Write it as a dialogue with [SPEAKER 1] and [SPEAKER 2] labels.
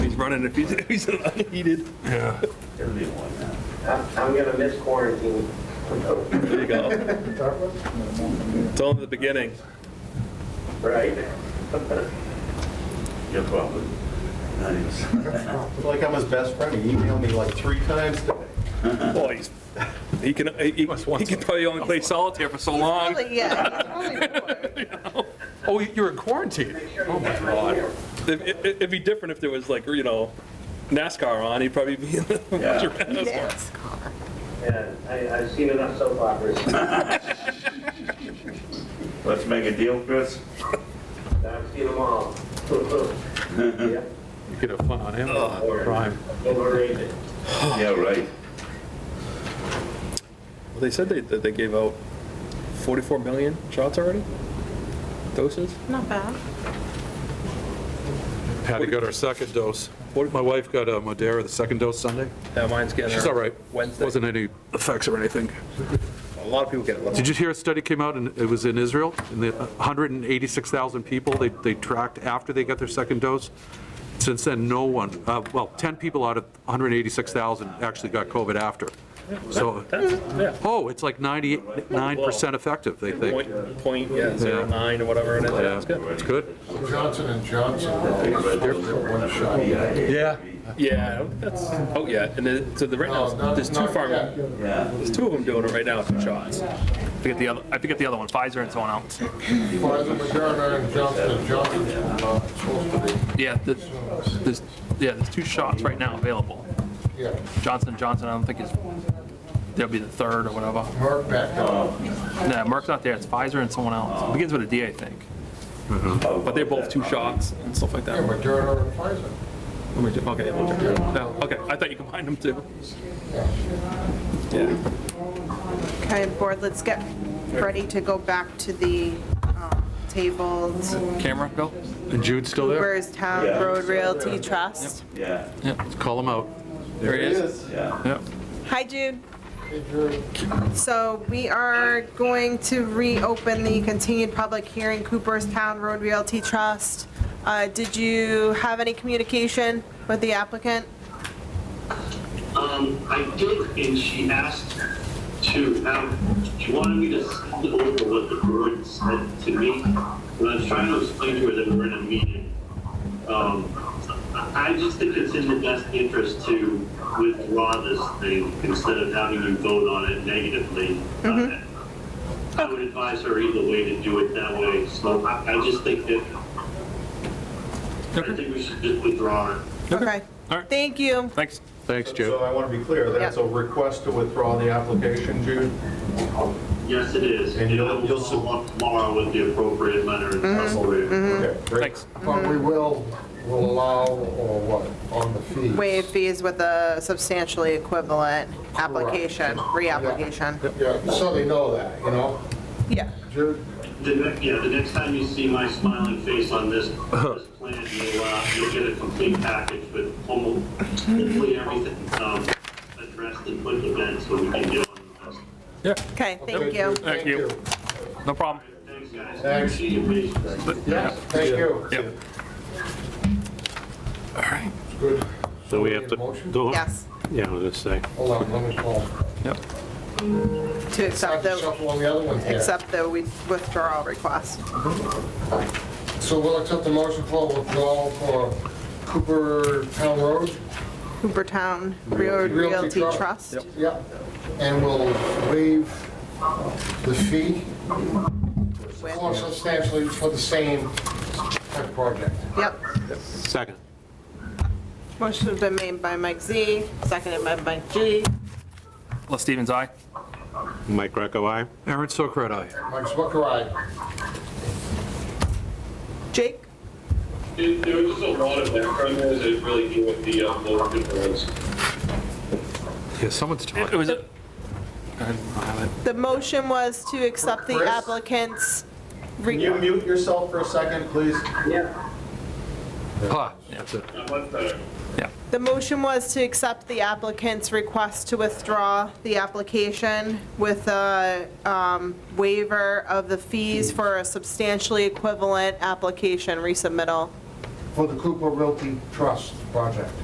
[SPEAKER 1] running if he's, if he's unheated.
[SPEAKER 2] Yeah.
[SPEAKER 3] It'll be one.
[SPEAKER 4] I'm, I'm gonna miss quarantine.
[SPEAKER 2] Oh
[SPEAKER 1] There you go. Tell him the beginning.
[SPEAKER 4] Right?
[SPEAKER 3] You're probably, not even,
[SPEAKER 5] Like I'm his best friend, he emailed me like three times today.
[SPEAKER 1] Boy, he's, he can, he, he can probably only play solitaire for so long.
[SPEAKER 6] Probably, yeah. he's probably bored.
[SPEAKER 2] Oh, you're in quarantine? Oh, my God.
[SPEAKER 1] It- it- It'd be different if there was like, you know, NASCAR on, he'd probably be in the.
[SPEAKER 3] Yeah.
[SPEAKER 6] Yes.
[SPEAKER 4] Yeah, I, I've seen enough soap operas.
[SPEAKER 3] let's make a deal, Chris.
[SPEAKER 4] I've seen them all. Yeah,
[SPEAKER 2] You could have fun on him,
[SPEAKER 4] Oh.
[SPEAKER 2] Prime.
[SPEAKER 4] Overrated.
[SPEAKER 3] Yeah, right.
[SPEAKER 1] Well, They said they, that they gave out 44 million shots already? Doses?
[SPEAKER 6] Not bad.
[SPEAKER 2] Patty got her second dose. My wife got uh, Modera, the second dose Sunday.
[SPEAKER 1] Yeah, mine's getting.
[SPEAKER 2] She's
[SPEAKER 1] her
[SPEAKER 2] all right.
[SPEAKER 1] Wednesday.
[SPEAKER 2] Wasn't any effects or anything.
[SPEAKER 1] A lot of people get it.
[SPEAKER 2] Did you hear a study came out, and it was in Israel, and the 186,000 people they, they tracked after they got their second dose. Since then, no one, uh, well, 10 people out of 186,000 actually got COVID after. So,
[SPEAKER 1] Yeah.
[SPEAKER 2] oh, it's like 99% effective, they think.
[SPEAKER 1] Point, point, yeah, zero
[SPEAKER 2] Yeah.
[SPEAKER 1] nine or whatever it is.
[SPEAKER 2] Yeah,
[SPEAKER 1] That's good.
[SPEAKER 2] It's good.
[SPEAKER 5] Johnson and Johnson, one shot.
[SPEAKER 2] Yeah.
[SPEAKER 1] Yeah, that's, oh, yeah, and then, so the, right
[SPEAKER 5] Oh,
[SPEAKER 1] now, there's two pharma,
[SPEAKER 3] Yeah.
[SPEAKER 1] there's two of them doing it right now, two shots. I forget the other, I forget the other one, Pfizer and someone else.
[SPEAKER 5] Pfizer, Moderna, and Johnson and Johnson, uh, supposed to
[SPEAKER 1] Yeah, the- there's, yeah, there's two shots right now available.
[SPEAKER 5] be, yeah,
[SPEAKER 1] Johnson Johnson, I don't think is, there'll be the third or whatever.
[SPEAKER 5] Mark back up.
[SPEAKER 1] No, Merck's not there, it's Pfizer and someone else. It begins with a D, I think. But
[SPEAKER 3] But
[SPEAKER 1] they're both two shots and stuff like
[SPEAKER 5] Yeah,
[SPEAKER 1] that.
[SPEAKER 5] Moderna and Pfizer.
[SPEAKER 1] Okay, no, okay, I thought you combined them too. Yeah.
[SPEAKER 6] Okay, board, let's get ready to go back to the um, tabled
[SPEAKER 1] Camera, Bill?
[SPEAKER 2] And Jude's still there?
[SPEAKER 6] Hoover's Town
[SPEAKER 3] Yeah.
[SPEAKER 6] Road Realty Trust.
[SPEAKER 3] Yeah,
[SPEAKER 2] Call him out.
[SPEAKER 1] There he is.
[SPEAKER 3] yeah.
[SPEAKER 1] Yep.
[SPEAKER 6] Hi, Jude. So we are going to reopen the continued public hearing, Cooperstown Road Realty Trust. Uh, Did you have any communication with the applicant?
[SPEAKER 7] Um, I did, and she asked to have, she wanted me to send over what the board said to me. And I was trying to explain to her that we were in a meeting. Um, I I just think it's in the best interest to withdraw this thing instead of having you vote on it negatively. I would advise her either way to do it that way, so I, I just think that, I think we should just withdraw it.
[SPEAKER 6] Okay.
[SPEAKER 1] All right.
[SPEAKER 6] Thank you.
[SPEAKER 1] Thanks.
[SPEAKER 2] Thanks,
[SPEAKER 5] So
[SPEAKER 2] Jude.
[SPEAKER 5] I want to be clear, that's a request to withdraw the application, Jude?
[SPEAKER 7] Yes, it is.
[SPEAKER 5] And you'll-
[SPEAKER 7] It'll
[SPEAKER 5] you'll
[SPEAKER 7] go
[SPEAKER 5] sub-
[SPEAKER 7] up Tomorrow with the appropriate letter and appropriate.
[SPEAKER 5] Okay, great.
[SPEAKER 1] Thanks.
[SPEAKER 5] But we will, will allow, or what, on the fees?
[SPEAKER 6] Waive fees with a substantially equivalent application, reapplication.
[SPEAKER 5] Yeah, so they know that, you know?
[SPEAKER 6] Yeah.
[SPEAKER 5] Jude,
[SPEAKER 7] The next, yeah, the next time you see my smiling face on this, this plan, you'll, uh, you'll get a complete package with almost, hopefully everything, um, addressed and put to bed so we can get on the best.
[SPEAKER 6] Okay, thank you.
[SPEAKER 5] Jude, Thank
[SPEAKER 1] you.
[SPEAKER 5] you.
[SPEAKER 1] No problem.
[SPEAKER 7] Thanks, guys.
[SPEAKER 5] Thanks.
[SPEAKER 7] Appreciate your patience.
[SPEAKER 5] Yes, thank you.
[SPEAKER 1] Yep.
[SPEAKER 5] Good.
[SPEAKER 8] So we have to,
[SPEAKER 5] Motion?
[SPEAKER 8] do-
[SPEAKER 6] Yes,
[SPEAKER 8] yeah, I was gonna say,
[SPEAKER 5] Hold on, let me call.
[SPEAKER 1] Yep.
[SPEAKER 6] to accept the,
[SPEAKER 5] Shuffle on the other ones here.
[SPEAKER 6] accept the withdrawal request.
[SPEAKER 5] So we'll accept the motion for withdrawal for Cooper Town Road.
[SPEAKER 6] Hoopertown Road
[SPEAKER 5] Realty
[SPEAKER 6] Realty
[SPEAKER 5] Trust.
[SPEAKER 6] Trust.
[SPEAKER 5] Yep. And we'll waive the fee
[SPEAKER 6] with-
[SPEAKER 5] or substantially for the same type of project.
[SPEAKER 6] Yep.
[SPEAKER 8] second.
[SPEAKER 6] Motion's been made by Mike Z, seconded by Mike G.
[SPEAKER 1] Les Stevens, aye.
[SPEAKER 8] Mike Greco, aye?
[SPEAKER 2] Aaron Sokrat, aye.
[SPEAKER 5] Mike Zwicker, aye.
[SPEAKER 6] Jake?
[SPEAKER 7] There- There was just a lot of background noise, I didn't really hear what the, uh, lower people was.
[SPEAKER 2] Yeah, someone's talking.
[SPEAKER 1] It was, a-
[SPEAKER 6] The motion was to accept the
[SPEAKER 5] Chris?
[SPEAKER 6] applicant's. re-
[SPEAKER 5] Can you mute yourself for a second, please?
[SPEAKER 4] Yeah.
[SPEAKER 2] Ah, that's it.
[SPEAKER 7] Not much better.
[SPEAKER 1] yeah.
[SPEAKER 6] The motion was to accept the applicant's request to withdraw the application with a um, waiver of the fees for a substantially equivalent application resubmittal.
[SPEAKER 5] for the Cooper Realty Trust project.